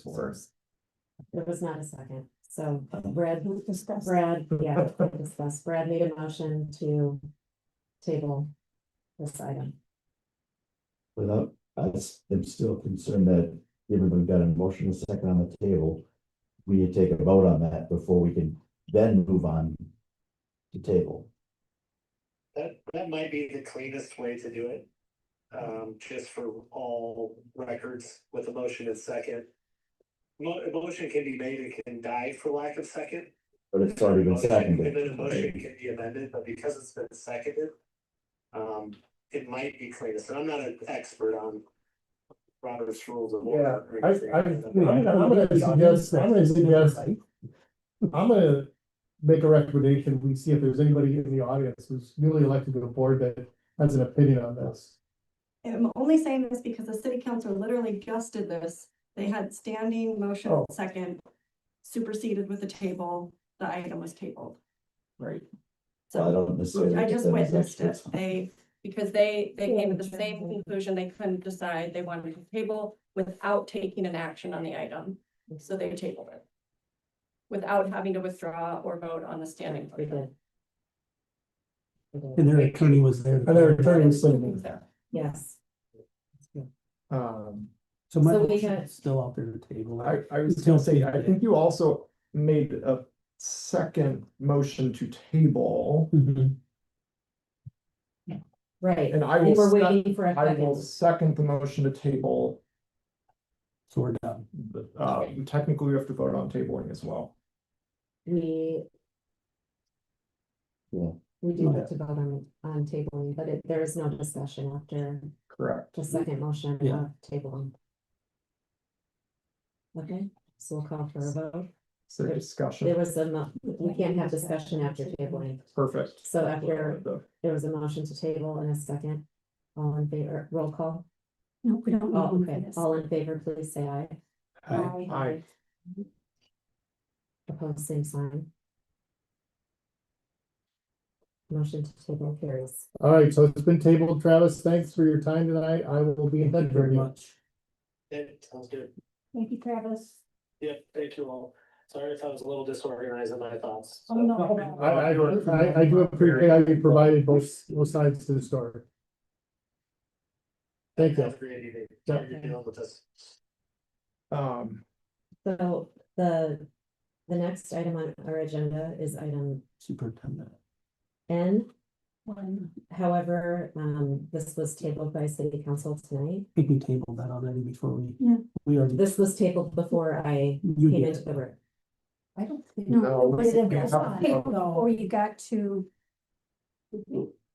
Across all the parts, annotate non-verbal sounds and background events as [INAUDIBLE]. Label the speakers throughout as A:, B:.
A: first four.
B: There was not a second, so Brad,
C: We discussed.
B: Brad, yeah, we discussed, Brad made a motion to table this item.
A: But I, I s- am still concerned that given we've got a motion and a second on the table, we need to take a vote on that before we can then move on to table.
D: That, that might be the cleanest way to do it. Um, just for all records with a motion and second. Mo- a motion can be made, it can die for lack of second.
A: But it's already been
D: Motion- And then a motion
A: seconded.
D: can be amended, but because it's been seconded. Um, it might be cleanest, and I'm not an expert on Robert's rules of order. or
E: I, I,
D: anything.
E: I'm gonna I'm gonna suggest, I'm gonna suggest, I'm gonna make a recommendation, we see if there's anybody in the audience who's newly elected to the board that has an opinion on this.
C: And I'm only saying this because the city council literally just did this. They had standing motion
E: Oh.
C: second superseded with the table, the item was tabled.
E: Right.
A: I
C: So
A: don't necessarily.
C: I just
A: think that is
C: witnessed it.
A: experts.
C: They, because they, they came to the
B: Yeah.
C: same conclusion. They couldn't decide. They wanted to table without taking an action on the item. So they tabled it. Without having to withdraw or vote on the standing.
B: We
C: motion.
B: did. We did.
F: And their attorney was there.
E: And their attorney was saying,
C: There.
B: Yes,
E: um,
F: So my
B: So we
F: motion
B: had-
F: is still out there to table.
G: I, I was gonna say, I think you also made a second motion to table,
F: Mhm.
B: right.
G: and I
B: We
G: will,
B: were
G: sec-
B: waiting for a
G: I will
B: second.
G: second the motion to table.
F: So we're done.
G: The-
E: Um,
G: Uh, technically, we have to vote on tabling as well.
B: We.
A: Yeah.
B: We do have to vote on, on tabling, but it, there is no discussion after
G: Correct.
B: the second motion
F: Yeah.
B: of tabling. Okay, so we'll call for a vote.
G: So
B: There
G: discussion,
B: was a, mo- we can't have discussion after tabling.
G: perfect.
B: So after
G: The-
B: There was a motion to table and a second. All in favor, roll call.
C: No, we don't.
B: All,
C: need
B: Oh, okay,
C: this.
B: all in favor, please say aye.
F: Aye.
G: Aye.
B: Opposed, same sign. Motion to table carries.
E: all right, so it's been tabled, Travis, thanks for your time tonight, I will be in
F: Thank you
E: touch
F: very
E: with you.
F: much.
D: That sounds good.
C: Thank you, Travis.
D: Yeah, thank you all. Sorry if I was a little disorganized in my thoughts.
C: Oh, no.
E: I, I, I, I do appreciate how you provided both, both sides to the story. Thank you.
D: Have a great evening.
E: Yeah.
D: You're dealing with us.
G: Um,
B: So the, the next item on our agenda is item
F: Superintendent.
B: N.
C: One.
B: However, um, this was tabled by city council tonight.
F: I think we tabled that already before we.
C: Yeah.
F: We already,
B: This was tabled before I
F: you
B: came
F: did.
B: into the room.
H: I don't think.
G: No,
H: But it
G: we-
H: was on paper
B: [LAUGHS]
H: Before you got to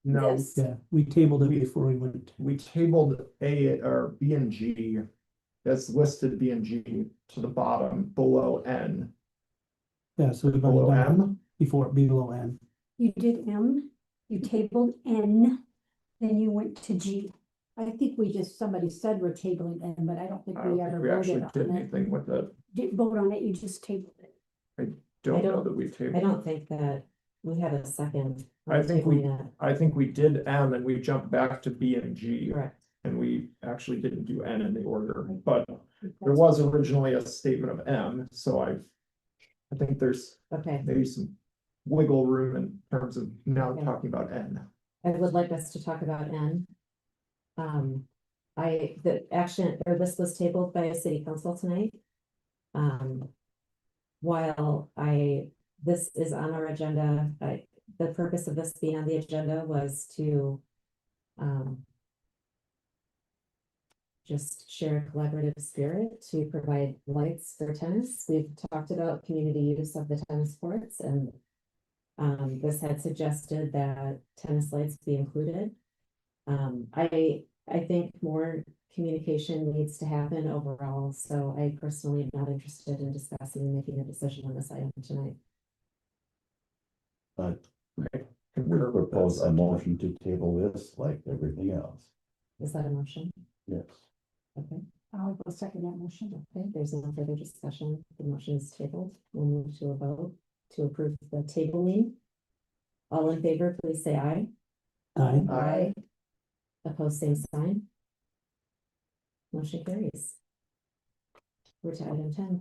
G: no,
H: this.
F: Yeah, we tabled it before we went.
G: we tabled A or B and G. That's listed B and G to the bottom below N,
F: Yeah, so we've
G: below
F: already done it
G: M.
F: before, below N.
H: You did M, you tabled N, then you went to G.
I: I think we just, somebody said we're tabling it, but I don't think
G: I
I: we
G: don't think
I: ever
G: we actually
I: voted
G: did
I: on it.
G: anything with it.
I: Didn't vote on it, you just tabled it.
G: Don't know
B: don't-
G: that we tabled.
B: I
G: it.
B: don't think that we had a second.
G: I think we-
B: Tabling that,
G: I think we did M and we jumped back to B and G
B: Correct.
G: and we actually didn't do N in the order, but there was originally a statement of M, so I. I think there's
B: Okay,
G: maybe some wiggle room in terms of now
B: Okay.
G: talking about N.
B: I would like us to talk about N. Um, I, the action, or this was tabled by a city council tonight. Um, while I, this is on our agenda, I, the purpose of this being on the agenda was to, um, just share a collaborative spirit to provide lights for tennis. We've talked about community use of the tennis courts and um, this had suggested that tennis lights be included. Um, I, I think more communication needs to happen overall, so I personally am not interested in discussing and making a decision on this item tonight.
A: But we
G: Concur with
A: propose
G: that.
A: a motion to table this like everything else.
B: Is that a motion?
A: Yes.
B: Okay,
I: I'll go second that motion.
B: okay, there's no further discussion. The motion is tabled. We'll move to a vote to approve the tabling. All in favor, please say aye.
F: Aye.
G: Aye.
B: Opposed, same sign. Motion carries. we're to item ten.